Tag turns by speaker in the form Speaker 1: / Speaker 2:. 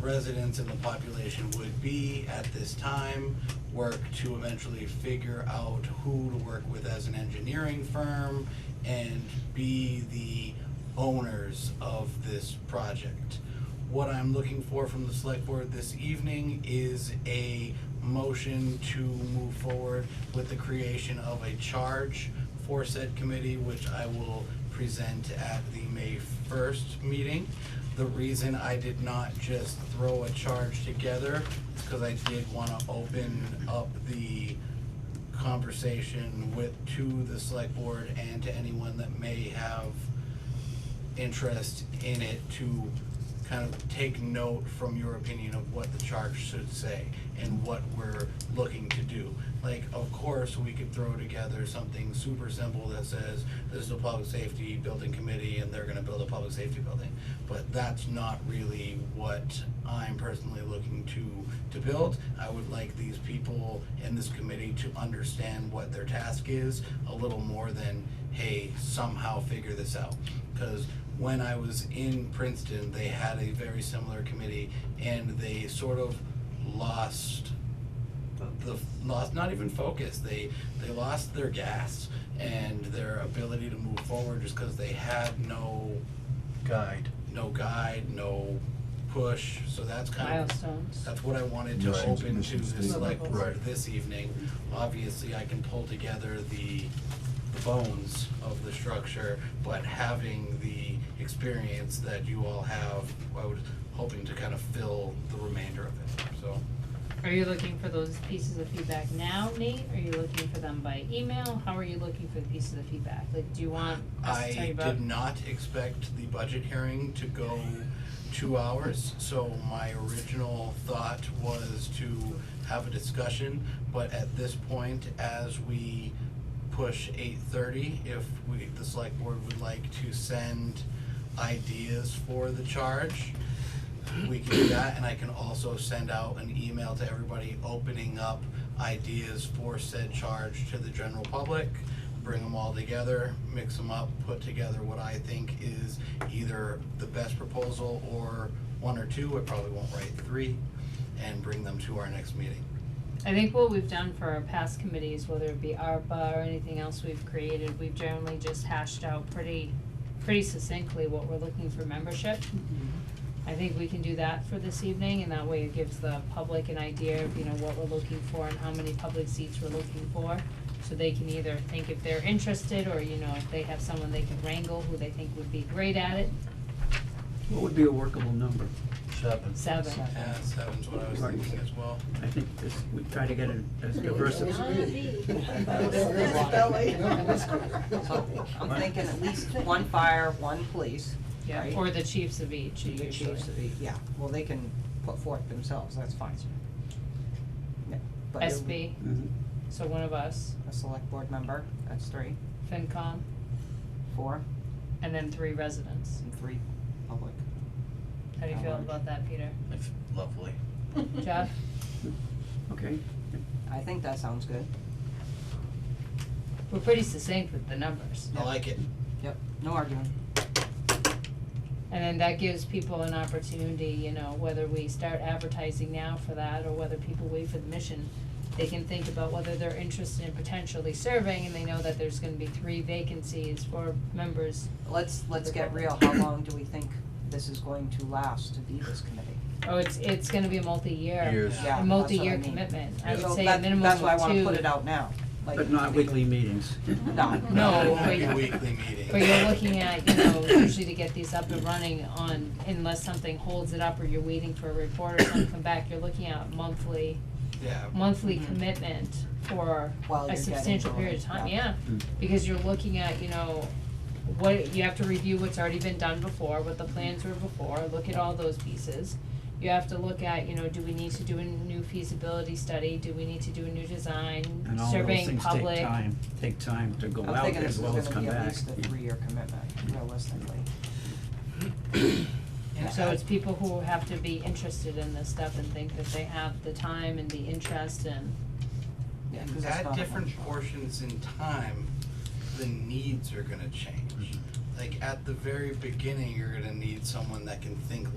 Speaker 1: residents in the population would be at this time, work to eventually figure out who to work with as an engineering firm, and be the owners of this project. What I'm looking for from the select board this evening is a motion to move forward with the creation of a charge for said committee, which I will present at the May first meeting. The reason I did not just throw a charge together is because I did wanna open up the conversation with, to the select board and to anyone that may have interest in it to kind of take note from your opinion of what the charge should say and what we're looking to do. Like, of course, we could throw together something super simple that says, this is a public safety building committee and they're gonna build a public safety building. But that's not really what I'm personally looking to, to build. I would like these people in this committee to understand what their task is a little more than, hey, somehow figure this out. Because when I was in Princeton, they had a very similar committee, and they sort of lost the lost not even focus. They they lost their gas and their ability to move forward just because they had no
Speaker 2: guide.
Speaker 1: no guide, no push. So that's kind of
Speaker 3: Milestones.
Speaker 1: that's what I wanted to
Speaker 2: Missions-
Speaker 1: open to
Speaker 2: mission
Speaker 1: the
Speaker 2: statement.
Speaker 1: select board
Speaker 2: Right.
Speaker 1: this evening. Obviously, I can pull together the the bones of the structure, but having the experience that you all have, I was hoping to kind of fill the remainder of it, so.
Speaker 3: Are you looking for those pieces of feedback now, Nate? Are you looking for them by email? How are you looking for the pieces of feedback? Like, do you want us to tell you
Speaker 1: I
Speaker 3: about?
Speaker 1: did not expect the budget hearing to go two hours, so my original thought was to have a discussion, but at this point, as we push eight thirty, if we, the select board would like to send ideas for the charge, we can do that, and I can also send out an email to everybody opening up ideas for said charge to the general public. Bring them all together, mix them up, put together what I think is either the best proposal or one or two, I probably won't write three, and bring them to our next meeting.
Speaker 3: I think what we've done for our past committees, whether it be ARPA or anything else we've created, we've generally just hashed out pretty, pretty succinctly what we're looking for membership. I think we can do that for this evening, and that way it gives the public an idea of, you know, what we're looking for and how many public seats we're looking for. So they can either think if they're interested, or, you know, if they have someone they can wrangle who they think would be great at it,
Speaker 4: What would be a workable number?
Speaker 2: Seven.
Speaker 3: seven.
Speaker 1: Yeah, seven's what I was thinking as well.
Speaker 4: I think this, we try to get it as diverse as.
Speaker 5: I'm thinking at least one fire, one police,
Speaker 3: Yeah,
Speaker 5: Right.
Speaker 3: or the chiefs of each,
Speaker 5: the
Speaker 3: usually.
Speaker 5: chiefs of the, yeah, well, they can put forth themselves, that's fine. Yeah, But it would-
Speaker 3: SB,
Speaker 4: Mhm.
Speaker 3: so one of us,
Speaker 5: A select board member, that's three,
Speaker 3: FinCom,
Speaker 5: four,
Speaker 3: and then three residents.
Speaker 5: and three public.
Speaker 3: How do you feel
Speaker 5: Howard.
Speaker 3: about that, Peter?
Speaker 2: It's lovely.
Speaker 3: Jeff?
Speaker 4: Okay,
Speaker 5: I think that sounds good.
Speaker 3: We're pretty succinct with the numbers.
Speaker 1: I like it.
Speaker 5: Yep. No argument.
Speaker 3: And then that gives people an opportunity, you know, whether we start advertising now for that or whether people wait for the mission. They can think about whether they're interested in potentially serving and they know that there's gonna be three vacancies for members.
Speaker 5: Let's, let's get real, how long do we think this is going to last to be this committee?
Speaker 3: Oh, it's, it's gonna be a multi-year.
Speaker 2: Years.
Speaker 5: Yeah, that's what
Speaker 3: A
Speaker 5: I
Speaker 3: multi-year
Speaker 5: mean.
Speaker 3: commitment. I would
Speaker 5: So
Speaker 3: say a
Speaker 5: that-
Speaker 3: minimum
Speaker 5: That's why I
Speaker 3: of
Speaker 5: wanna put
Speaker 3: two.
Speaker 5: it out now, like.
Speaker 4: but not weekly meetings.
Speaker 5: No.
Speaker 3: No,
Speaker 1: It won't be
Speaker 3: but-
Speaker 1: weekly meetings.
Speaker 3: But you're looking at, you know, usually to get these up and running on, unless something holds it up or you're waiting for a report or something to come back, you're looking at monthly,
Speaker 1: Yeah.
Speaker 3: monthly
Speaker 5: Mhm.
Speaker 3: commitment for
Speaker 5: While
Speaker 3: a
Speaker 5: you're getting
Speaker 3: substantial
Speaker 5: going,
Speaker 3: period of time,
Speaker 5: yeah.
Speaker 3: yeah.
Speaker 4: Mm.
Speaker 3: Because you're looking at, you know, what, you have to review what's already been done before, what the plans were before, look at all those pieces. You have to look at, you know, do we need to do a new feasibility study, do we need to do a new design,
Speaker 4: And all those
Speaker 3: surveying
Speaker 4: things take
Speaker 3: public?
Speaker 4: time, take time to go
Speaker 5: I'm
Speaker 4: out
Speaker 5: thinking this
Speaker 4: as
Speaker 5: is
Speaker 4: well as
Speaker 5: gonna
Speaker 4: come
Speaker 5: be at
Speaker 4: back.
Speaker 5: least a three-year commitment, realistically.
Speaker 1: And
Speaker 3: So
Speaker 1: I-
Speaker 3: it's people who have to be interested in this stuff and think that they have the time and the interest and,
Speaker 5: Yeah,
Speaker 1: And
Speaker 5: 'cause it's
Speaker 1: at
Speaker 5: not
Speaker 1: different
Speaker 5: much.
Speaker 1: portions in time, the
Speaker 5: Mm-hmm.
Speaker 1: needs are gonna change. Like, at the very beginning, you're gonna need someone that can think